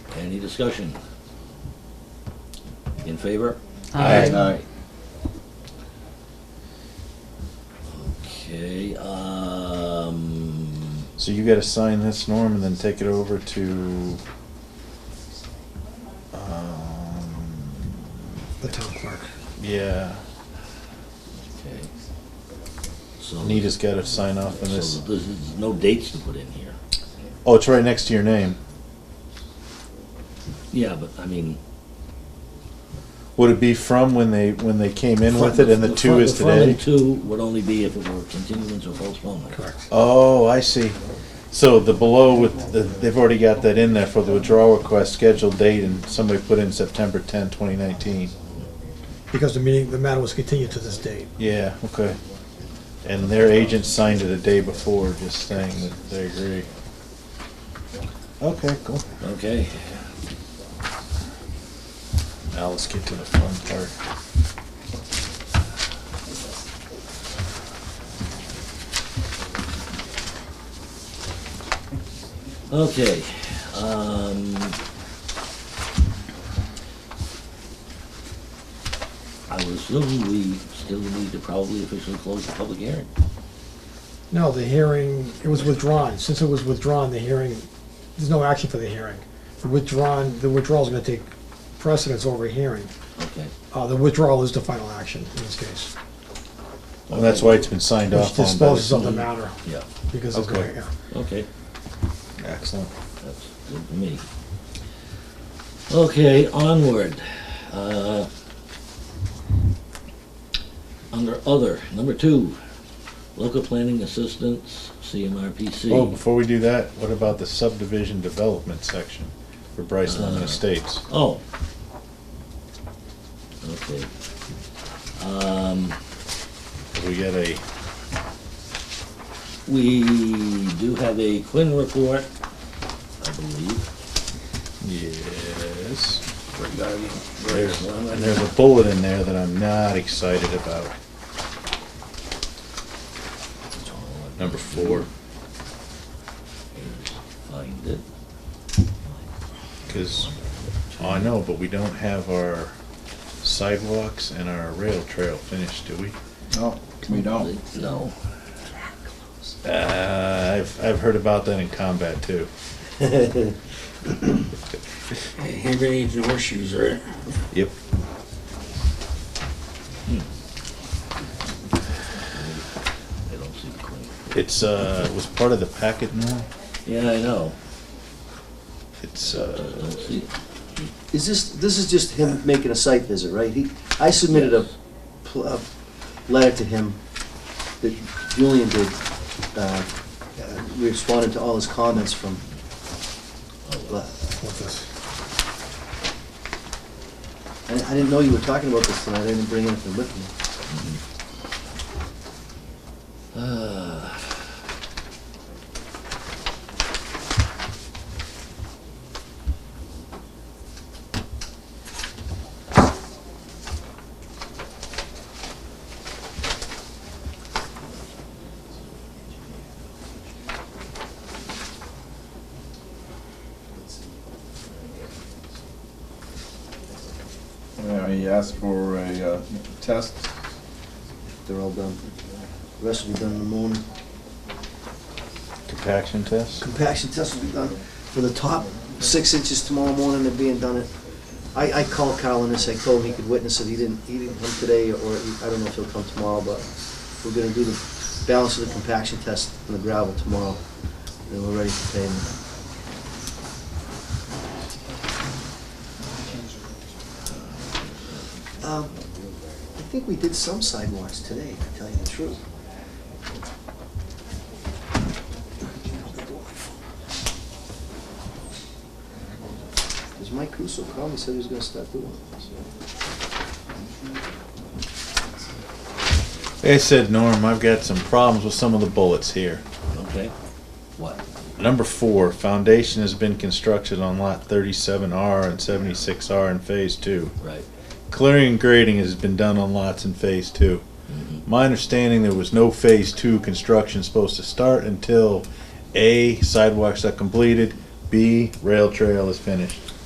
discussion? In favor? Aye. Okay, um, So you gotta sign this, Norm, and then take it over to, um, the town clerk. yeah, okay. So, Nita's gotta sign off on so this. there's there's no dates to put in here. Oh, it's right next to your name. Yeah, but I mean, Would it be from when they, when they came in with it and the two front- is the front today? and two would only be if it were continuance or postponement. Correct. Oh, I see. So the below with, the- they've already got that in there for the withdrawal request, scheduled date, and somebody put in September 10, 2019. Because the meeting, the matter was continued to this date. Yeah, okay. And their agent signed it a day before, just saying that they agree. Okay, cool. Okay, Now let's get to the fun part. okay, um. I would assume we still need to probably officially close the public hearing. No, the hearing, it was withdrawn. Since it was withdrawn, the hearing, there's no action for the hearing. The Withdrawn, the withdrawal is gonna take precedence over hearing. Okay, Uh, the withdrawal is the final action in this case, Well, that's why it's been signed which off on. by disposes the- of the matter, yeah, because it's Okay. going, yeah. okay. Excellent. That's good for me. Okay, onward. Uh, Under other, number two, local planning assistance, Oh, CMRPC. before we do that, what about the subdivision development section for Bryce Lemon Estates? Oh. Okay. Um, We got a, We do have a Quinn report, I believe. yes. There's And one. there's a bullet in there that I'm not excited about. Number four, Find it. because Oh, I know, but we don't have our sidewalks and our rail trail finished, do we? No, we don't. No. Uh, I've, I've heard about that in combat too. Hand grenades and horseshoes, right? Yep. I don't see Quinn. It's, uh, it was part of the packet now. Yeah, I know. It's, I uh, don't see it. Is this, this is just him making a site visit, right? He, I submitted a, pl- a letter to him that Julian did, uh, uh, responded to all his comments from, uh, With this. I I didn't know you were talking about this tonight, I didn't bring anything with me. Ah. Yeah, He asked for a uh, test. They're all done. The rest will be done in the morning. compaction test? Compaction test will be done for the top six inches tomorrow morning, they're being done at, I, I called Carl and I told him he could witness it, he didn't, he didn't come today, or he- I don't know if he'll come tomorrow, but we're gonna do the balance of the compaction test on the gravel tomorrow, and we're ready for pavement. Um, I think we did some sidewalks today, to tell you the truth. Because Mike Russo called me, said he was gonna start doing it, so. Like I said, Norm, I've got some problems with some of the bullets here. Okay. What? Number four, foundation has been constructed on lot thirty-seven R and seventy-six R in phase two. Right. Clearing and grading has been done on lots in phase two. My understanding, there was no phase two construction supposed to start until A, sidewalks are completed, B, rail trail is finished.